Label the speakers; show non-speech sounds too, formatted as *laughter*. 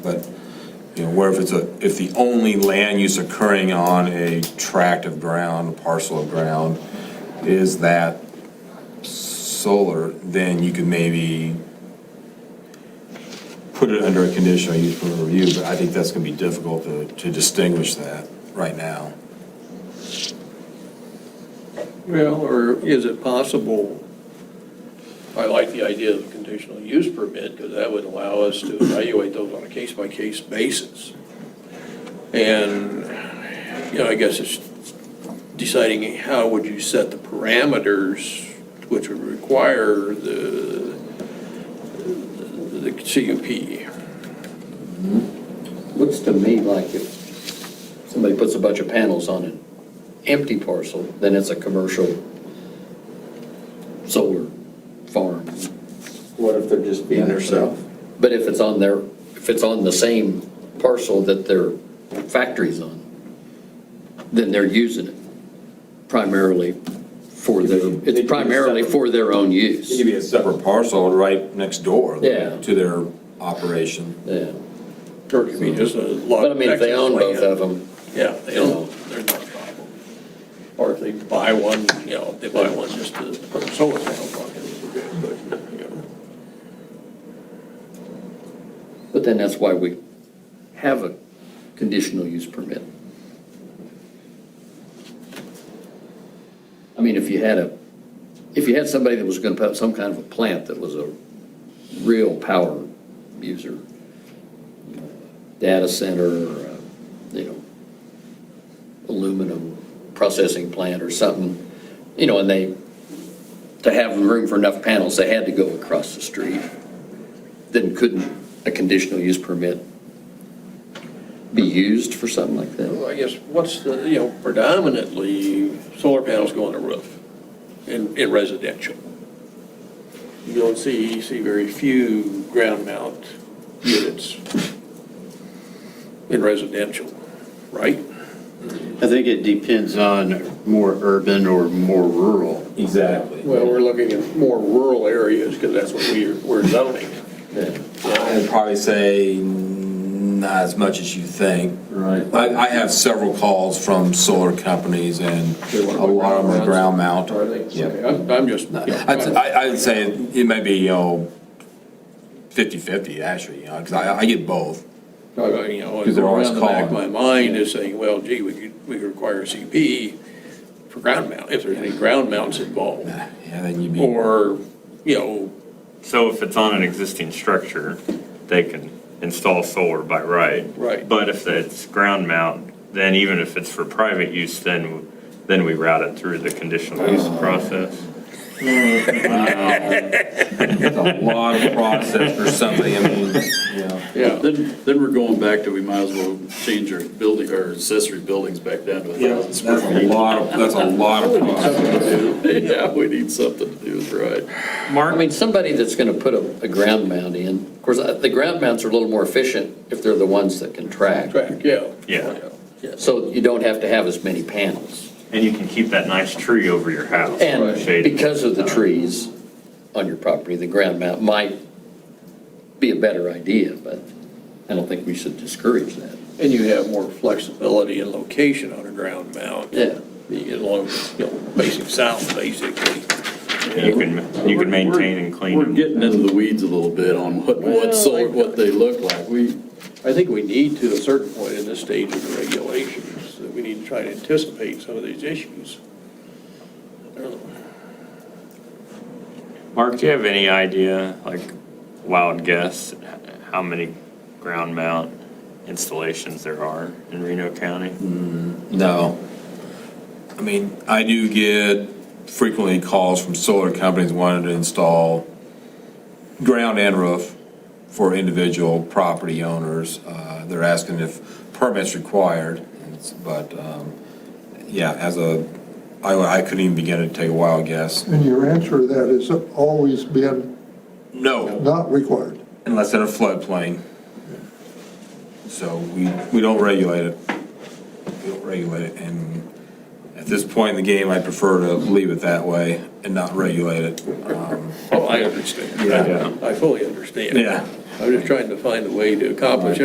Speaker 1: But, you know, where if it's a, if the only land use occurring on a tract of ground, a parcel of ground, is that solar, then you could maybe put it under a conditional use permit review, but I think that's gonna be difficult to, to distinguish that right now.
Speaker 2: Well, or is it possible, I like the idea of a conditional use permit, because that would allow us to evaluate those on a case-by-case basis. And, you know, I guess it's deciding how would you set the parameters, which would require the, the CUP.
Speaker 3: Looks to me like if somebody puts a bunch of panels on an empty parcel, then it's a commercial solar farm.
Speaker 4: What if they're just being themselves?
Speaker 3: But if it's on their, if it's on the same parcel that their factory's on, then they're using it primarily for their, it's primarily for their own
Speaker 1: It could
Speaker 3: use.
Speaker 1: be a separate parcel right next door
Speaker 3: Yeah.
Speaker 1: to their operation.
Speaker 3: Yeah.
Speaker 2: Or it could be just a lot.
Speaker 3: But I mean, if they own both of them,
Speaker 2: Yeah, they don't, there's no problem. Or if they buy one, you know, if they buy one just to put a solar panel on it. but, you know.
Speaker 3: but then that's why we have a conditional use permit. I mean, if you had a, if you had somebody that was gonna put up some kind of a plant that was a real power user, you know, data center, or, uh, you know, aluminum processing plant or something, you know, and they, to have room for enough panels, they had to go across the street, then couldn't a conditional use permit be used for something like that?
Speaker 2: Well, I guess, what's the, you know, predominantly, solar panels go on the roof in, in residential. You don't see, you see very few ground mount units in residential, right?
Speaker 5: I think it depends on more urban or more rural.
Speaker 1: Exactly.
Speaker 2: Well, we're looking at more rural areas, because that's what we, we're zoning.
Speaker 1: I'd probably say not as much as you think.
Speaker 4: Right.
Speaker 1: I, I have several calls from solar companies and a
Speaker 2: They wanna put
Speaker 1: lot of them are ground
Speaker 2: ground
Speaker 1: mount.
Speaker 2: Are they?
Speaker 1: Yeah.
Speaker 2: Okay, I'm, I'm just. you know,
Speaker 1: I'd, I- I'd say it may be, you know, fifty-fifty actually, you know, because I, I get both.
Speaker 2: Uh, You know,
Speaker 1: Because they're always
Speaker 2: around the back of my
Speaker 1: calling.
Speaker 2: mind is saying, well, gee, we could, we could require a CP for ground mount, if there's any ground mounts involved.
Speaker 1: Yeah, then you'd be,
Speaker 2: Or, you know,
Speaker 6: So if it's on an existing structure, they can install solar by right.
Speaker 2: Right.
Speaker 6: But if it's ground mount, then even if it's for private use, then, then we route it through the conditional use process.
Speaker 1: it's a lot of process for somebody, I mean, you know.
Speaker 2: yeah,
Speaker 7: Then, then we're going back to, we might as well change our building, our accessory buildings back down to a thousand
Speaker 1: That's
Speaker 7: square
Speaker 1: a
Speaker 7: feet.
Speaker 1: lot of, that's a lot of process.
Speaker 2: *laughs*
Speaker 7: Yeah, we need something to do, with right.
Speaker 3: I mean, somebody that's gonna put a, a ground mount in, of course, uh, the ground mounts are a little more efficient if they're the ones that can track.
Speaker 2: track, yeah.
Speaker 6: Yeah.
Speaker 3: So you don't have to have as many panels.
Speaker 6: And you can keep that nice tree over your house.
Speaker 3: And
Speaker 6: shaded.
Speaker 3: because of the trees on your property, the ground mount might be a better idea, but I don't think we should discourage that.
Speaker 2: And you have more flexibility in location on a ground mount.
Speaker 3: Yeah.
Speaker 2: You get along, you know, basic south, basically.
Speaker 6: You can, you can maintain and clean
Speaker 7: We're
Speaker 6: them.
Speaker 7: getting into the weeds a little bit on what,
Speaker 2: Well,
Speaker 7: what solar,
Speaker 2: I-
Speaker 7: what they look like. We,
Speaker 2: I think we need to, at a certain point in this stage of the regulations, that we need to try to anticipate some of these issues. I don't know.
Speaker 6: Mark, do you have any idea, like wild guess, how many ground mount installations there are in Reno County?
Speaker 1: No. I mean, I do get frequently calls from solar companies wanting to install ground and roof for individual property owners. Uh, They're asking if permits required, It's- but um, yeah, as a, I, I couldn't even begin to take a wild guess.
Speaker 8: And your answer to that has always been
Speaker 1: No,
Speaker 8: not required.
Speaker 1: unless in a floodplain. So we, we don't regulate it. We don't regulate it, and at this point in the game, I prefer to leave it that way and not regulate it. Um,
Speaker 2: Oh, I understand.
Speaker 1: Yeah.
Speaker 2: I fully understand.
Speaker 1: Yeah.
Speaker 2: I'm just trying to find a way to accomplish